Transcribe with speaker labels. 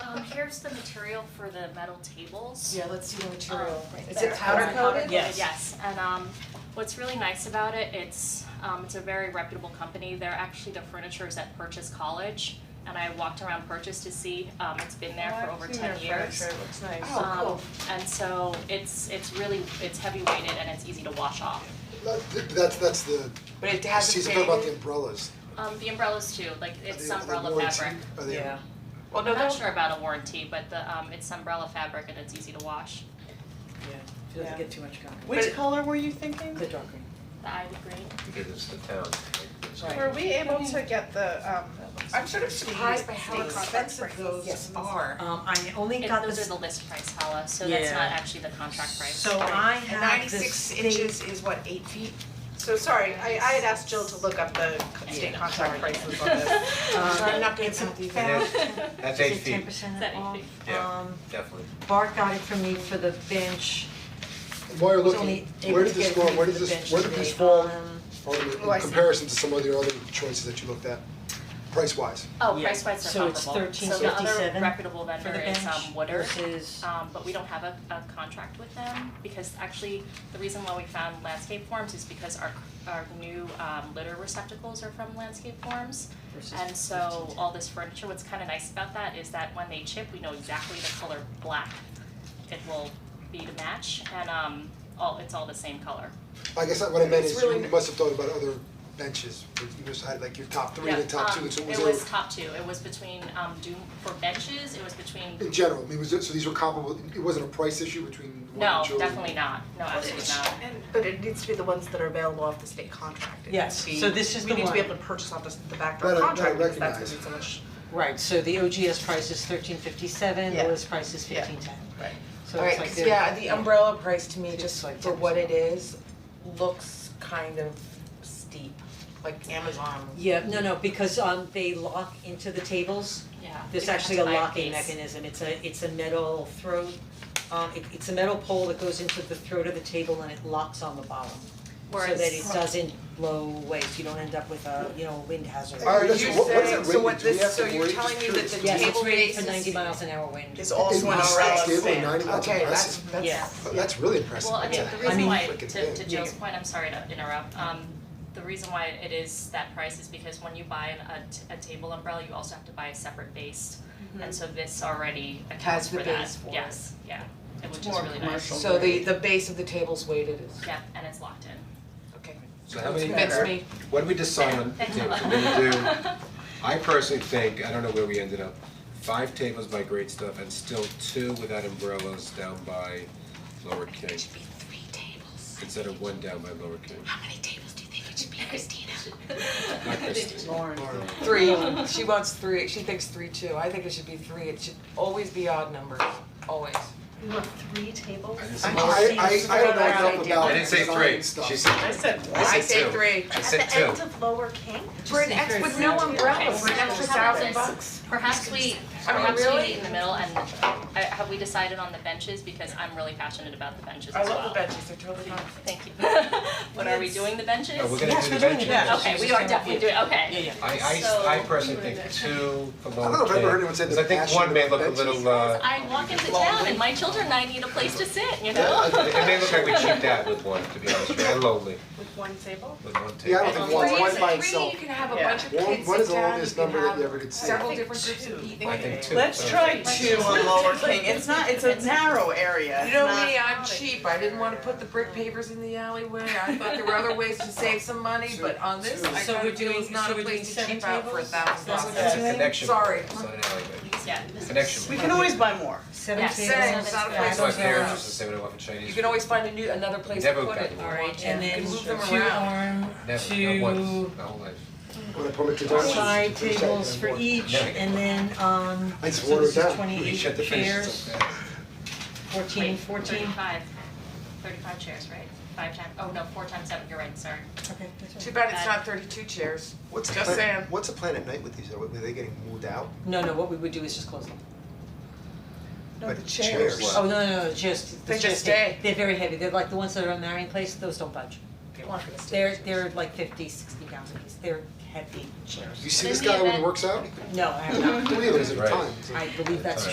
Speaker 1: Um, here's the material for the metal tables.
Speaker 2: Yeah, let's see the material.
Speaker 1: Um, right
Speaker 2: Is
Speaker 1: there.
Speaker 2: it powder coated?
Speaker 3: Yes.
Speaker 1: Yes, and um what's really nice about it, it's um it's a very reputable company, they're actually the furniture is at Purchase College. And I walked around Purchase to see, um it's been there for over ten years.
Speaker 3: it looks nice.
Speaker 2: Oh. cool.
Speaker 1: Um and so it's it's really, it's heavy weighted and it's easy to wash off.
Speaker 4: That, that's, that's the,
Speaker 3: But it
Speaker 4: she's
Speaker 3: hasn't
Speaker 4: talking about the
Speaker 3: faded,
Speaker 4: umbrellas.
Speaker 1: Um the umbrellas too, like
Speaker 4: Are
Speaker 1: it's
Speaker 4: they- are they
Speaker 1: umbrella
Speaker 4: warranty?
Speaker 1: fabric.
Speaker 4: Are they?
Speaker 3: yeah. Well, no,
Speaker 1: I'm not
Speaker 3: those,
Speaker 1: sure about a warranty, but the um it's umbrella fabric and it's easy to wash,
Speaker 5: She doesn't
Speaker 3: Yeah.
Speaker 5: get too much concrete,
Speaker 3: But-
Speaker 2: Which color were you thinking?
Speaker 5: the dark green.
Speaker 1: the ivy green.
Speaker 6: because it's the town. like, it's-
Speaker 2: Right.
Speaker 7: Were we able to get the, um,
Speaker 3: I'm sort of surprised by how
Speaker 7: These
Speaker 3: expensive
Speaker 7: contract
Speaker 3: those
Speaker 2: Yes.
Speaker 3: are.
Speaker 5: Um, I only
Speaker 1: It-
Speaker 5: got
Speaker 1: those
Speaker 5: this,
Speaker 1: are the list price, Hala, so that's
Speaker 5: Yeah.
Speaker 1: not actually the contract price.
Speaker 5: so I
Speaker 3: And
Speaker 5: have the
Speaker 3: ninety-six
Speaker 5: state,
Speaker 3: inches is what, eight feet?
Speaker 7: so sorry, I, I had asked Jill to look up the state
Speaker 5: Yeah.
Speaker 7: contract prices on this.
Speaker 1: uh,
Speaker 3: Sorry, I'm
Speaker 5: um,
Speaker 3: not gonna
Speaker 5: it's
Speaker 3: count these.
Speaker 5: about,
Speaker 6: It That's
Speaker 5: is
Speaker 6: eight
Speaker 5: it ten
Speaker 6: feet,
Speaker 5: percent
Speaker 1: That
Speaker 5: off?
Speaker 1: eight feet.
Speaker 6: Yeah.
Speaker 5: Um,
Speaker 6: definitely.
Speaker 5: Bart got it for me for the bench,
Speaker 4: And While you're
Speaker 5: was
Speaker 4: looking,
Speaker 5: only
Speaker 4: where
Speaker 5: able to
Speaker 4: did
Speaker 5: get
Speaker 4: this
Speaker 5: it for
Speaker 4: fall,
Speaker 5: me
Speaker 4: where
Speaker 5: for
Speaker 4: did
Speaker 5: the bench
Speaker 4: this, where did this
Speaker 5: today,
Speaker 4: fall,
Speaker 5: um,
Speaker 4: on the-
Speaker 7: Oh, I
Speaker 4: in
Speaker 7: see.
Speaker 4: comparison to some of the other choices that you looked at, price wise?
Speaker 1: Oh,
Speaker 5: Yeah.
Speaker 1: price wise
Speaker 5: So
Speaker 1: are
Speaker 5: it's
Speaker 1: comparable, so the other
Speaker 5: 13.57
Speaker 1: reputable
Speaker 5: for the
Speaker 1: vendor
Speaker 5: bench
Speaker 1: is um Woodard.
Speaker 5: versus-
Speaker 1: Um, but we don't have a, a contract with them, because actually, the reason why we found landscape forms is because our, our new, um, litter receptacles are from landscape forms.
Speaker 5: Versus
Speaker 1: And so, all this furniture, what's kinda nice about that is that when they chip, we know exactly the color black it will be to match, and, um, all, it's all the same color.
Speaker 4: I guess what I meant
Speaker 3: It's
Speaker 4: is
Speaker 3: really-
Speaker 4: you must have thought about other benches, but you just had like your top three and the top two, so
Speaker 1: Yeah,
Speaker 4: it
Speaker 1: um,
Speaker 4: was
Speaker 1: it was
Speaker 4: a,
Speaker 1: top two, it was between, um, do, for benches, it was between
Speaker 4: in general, I mean, was it, so these were comparable, it wasn't a price issue between one
Speaker 1: No,
Speaker 4: and two?
Speaker 1: definitely not, no, absolutely not.
Speaker 7: And, but it needs to be the ones that are available off the state contract. It
Speaker 5: Yes,
Speaker 7: needs to
Speaker 5: so
Speaker 7: be-
Speaker 5: this is the
Speaker 7: We need to be
Speaker 5: one.
Speaker 7: able to purchase off the, the backdoor
Speaker 4: Right, right,
Speaker 7: contract, because that's gonna
Speaker 4: recognize.
Speaker 7: be so much.
Speaker 5: right, so the OGS price is thirteen fifty-seven,
Speaker 7: Yeah.
Speaker 5: the list price is
Speaker 7: Yeah.
Speaker 5: fifteen ten.
Speaker 7: Right.
Speaker 5: So it's like
Speaker 3: Alright, 'cause
Speaker 5: they're-
Speaker 3: yeah, the umbrella price to me,
Speaker 5: It's
Speaker 3: just
Speaker 5: like
Speaker 3: for what
Speaker 5: 10%.
Speaker 3: it is, looks kind of steep, like Amazon.
Speaker 5: Yeah, no, no, because um they lock into the tables,
Speaker 1: Yeah.
Speaker 5: there's actually a locking mechanism, it's a it's a metal throat. Um it it's a metal pole that goes into the throat of the table and it locks on the bottom. So that it
Speaker 1: Whereas,
Speaker 5: doesn't blow away, so you don't end up with a, you know, wind hazard.
Speaker 4: Alright,
Speaker 3: You
Speaker 4: listen, what what is
Speaker 3: say-
Speaker 4: it
Speaker 3: so what
Speaker 4: rated? Do we
Speaker 3: this-
Speaker 4: have
Speaker 3: so
Speaker 4: to
Speaker 3: you're
Speaker 4: worry? Just
Speaker 3: telling me that
Speaker 4: curious.
Speaker 3: the
Speaker 5: Yes,
Speaker 3: table
Speaker 5: it's rated
Speaker 3: rate
Speaker 5: for
Speaker 3: is-
Speaker 5: ninety miles an hour wind.
Speaker 3: It's
Speaker 4: Is
Speaker 3: also an
Speaker 4: it
Speaker 3: umbrella
Speaker 4: stable,
Speaker 3: stand.
Speaker 4: 90? That's
Speaker 3: Okay, that's,
Speaker 4: impressive.
Speaker 3: that's.
Speaker 5: Yeah.
Speaker 4: Well, that's really impressive,
Speaker 1: well, I
Speaker 4: That's
Speaker 1: mean,
Speaker 4: a
Speaker 1: the
Speaker 4: heck of
Speaker 1: reason
Speaker 4: a
Speaker 1: why,
Speaker 4: freaking
Speaker 1: to to
Speaker 4: thing.
Speaker 1: Jill's point, I'm sorry to interrupt, um, the reason why it is that price is because when you buy an- a, t- a table umbrella, you also have to buy a separate base. And so this already accounts
Speaker 3: the
Speaker 1: for that,
Speaker 3: base for it.
Speaker 1: yes, yeah, and which is
Speaker 3: more
Speaker 1: really nice,
Speaker 3: commercial. So the the base of the table's weighted is,
Speaker 1: yeah, and it's locked in.
Speaker 3: okay.
Speaker 6: So how many,
Speaker 3: Convince me.
Speaker 6: what did we decide on,
Speaker 1: Thanks
Speaker 6: Tim,
Speaker 1: a lot.
Speaker 6: for me to do? I personally think, I don't know where we ended up, five tables by Great Stuff and still two without umbrellas down by Lower King,
Speaker 8: should be three tables.
Speaker 6: instead of one down by Lower King.
Speaker 8: How many tables do you think it should be, Christina?
Speaker 6: Not Christine.
Speaker 3: Three, she wants three, she thinks three too, I think it should be three, it should always be odd numbers, always.
Speaker 6: I didn't
Speaker 4: I
Speaker 6: say-
Speaker 4: I I don't know enough about
Speaker 6: I didn't say
Speaker 4: design
Speaker 6: three,
Speaker 4: stuff.
Speaker 6: she said,
Speaker 7: I said,
Speaker 6: I
Speaker 3: I
Speaker 6: said
Speaker 3: say
Speaker 6: two.
Speaker 3: three.
Speaker 6: I said two.
Speaker 8: of Lower King?
Speaker 3: For an ex with no umbrella, for an extra thousand bucks.
Speaker 1: Perhaps we,
Speaker 3: I mean,
Speaker 1: perhaps we
Speaker 3: really?
Speaker 1: meet in the middle and, uh, have we decided on the benches, because I'm really passionate about the benches
Speaker 3: I
Speaker 1: as well.
Speaker 3: love the benches, they're totally fun.
Speaker 1: Thank you. What, are we doing the benches?
Speaker 6: No, we're gonna
Speaker 5: Yes,
Speaker 6: do
Speaker 5: we're
Speaker 6: the
Speaker 5: doing the
Speaker 6: benches.
Speaker 5: bench.
Speaker 1: Okay, we are definitely doing, okay.
Speaker 5: Yeah, yeah.
Speaker 6: I I I personally think two for Lower King.
Speaker 4: I don't know if I've ever heard anyone say the
Speaker 6: Because I think
Speaker 4: passion
Speaker 6: one may
Speaker 4: of
Speaker 6: look a
Speaker 4: benches.
Speaker 6: little uh,
Speaker 1: I walk into town and my children and I need a place to sit, you know?
Speaker 4: Yeah,
Speaker 6: It may look like we cheaped out with one, to be honest with you, and lonely
Speaker 7: with one table?
Speaker 6: with one
Speaker 4: Yeah, I don't
Speaker 6: table.
Speaker 4: think one's one by
Speaker 3: Three,
Speaker 4: itself.
Speaker 3: you can have a
Speaker 7: Yeah.
Speaker 3: bunch of
Speaker 4: One-
Speaker 3: kids
Speaker 4: what is
Speaker 3: sit
Speaker 4: the
Speaker 3: down, you
Speaker 4: longest
Speaker 3: can
Speaker 4: number that
Speaker 3: have
Speaker 4: you ever could see?
Speaker 3: several different groups of people.
Speaker 6: I think two.
Speaker 9: Let's
Speaker 6: so-
Speaker 9: try two on Lower King, it's not, it's a narrow area,
Speaker 3: You
Speaker 9: it's
Speaker 3: know
Speaker 9: not-
Speaker 3: me, I'm cheap, I didn't wanna put the brick pavers in the alleyway, I thought there were other ways to save some money, but on this, I
Speaker 5: So
Speaker 3: kinda
Speaker 5: we're
Speaker 3: feel
Speaker 5: doing-
Speaker 3: it's not
Speaker 5: so
Speaker 3: a
Speaker 5: we're
Speaker 3: place to
Speaker 5: doing
Speaker 3: cheap out for a thousand
Speaker 5: seven tables?
Speaker 3: bucks.
Speaker 5: That's
Speaker 6: It's a connection.
Speaker 3: Sorry.
Speaker 6: It's not an alleyway.
Speaker 1: Yeah, this is-
Speaker 6: Connection.
Speaker 9: We can always buy more.
Speaker 5: Seven
Speaker 1: Yeah,
Speaker 5: tables.
Speaker 1: same,
Speaker 3: it's not a
Speaker 1: Yeah.
Speaker 3: place
Speaker 6: That's why
Speaker 3: to cheap
Speaker 6: parents used
Speaker 3: out.
Speaker 6: to say when I went for Chinese.
Speaker 3: You can always find a new, another place to
Speaker 6: Never
Speaker 3: put
Speaker 6: got
Speaker 3: it.
Speaker 6: one.
Speaker 5: Alright, and
Speaker 3: You
Speaker 5: then
Speaker 3: can move them
Speaker 5: two
Speaker 3: around.
Speaker 5: arm,
Speaker 6: Never, not
Speaker 5: two
Speaker 6: once, my whole life.
Speaker 4: When I put my
Speaker 5: Two
Speaker 4: credentials,
Speaker 5: side
Speaker 4: it's pretty
Speaker 5: tables
Speaker 4: sad,
Speaker 5: for
Speaker 4: I'm
Speaker 5: each,
Speaker 6: Never get
Speaker 5: and
Speaker 6: one.
Speaker 5: then, um,
Speaker 4: I just
Speaker 5: so this
Speaker 4: water it
Speaker 5: is
Speaker 4: down.
Speaker 6: We
Speaker 5: twenty-eight
Speaker 6: shut the finishes
Speaker 5: chairs,
Speaker 6: up fast.
Speaker 5: fourteen,
Speaker 1: Wait,
Speaker 5: fourteen,
Speaker 1: 35 35 chairs, right? Five times, oh no, four times seven, you're right, sorry.
Speaker 5: okay, that's right.
Speaker 3: Too bad it's not thirty-two chairs.
Speaker 4: What's the
Speaker 3: Just
Speaker 4: plan-
Speaker 3: saying.
Speaker 4: What's the plan at night with these? Are they getting moved out?
Speaker 5: No, no, what we would do is just close them.
Speaker 4: But
Speaker 6: chairs.
Speaker 5: Oh, no, no, no, just,
Speaker 3: They
Speaker 5: the
Speaker 3: just
Speaker 5: just,
Speaker 3: stay.
Speaker 5: they- they're very heavy, they're like the ones that are on Marion Place, those don't budge. They're, they're like fifty, sixty pounds a piece, they're heavy chairs.
Speaker 4: You see
Speaker 1: Then
Speaker 4: this
Speaker 1: the
Speaker 4: guy when he
Speaker 1: event-
Speaker 4: works out?
Speaker 5: No, I have not,
Speaker 4: Three of those at a
Speaker 6: Right.
Speaker 4: time. It's like-
Speaker 5: I believe that's
Speaker 6: Right.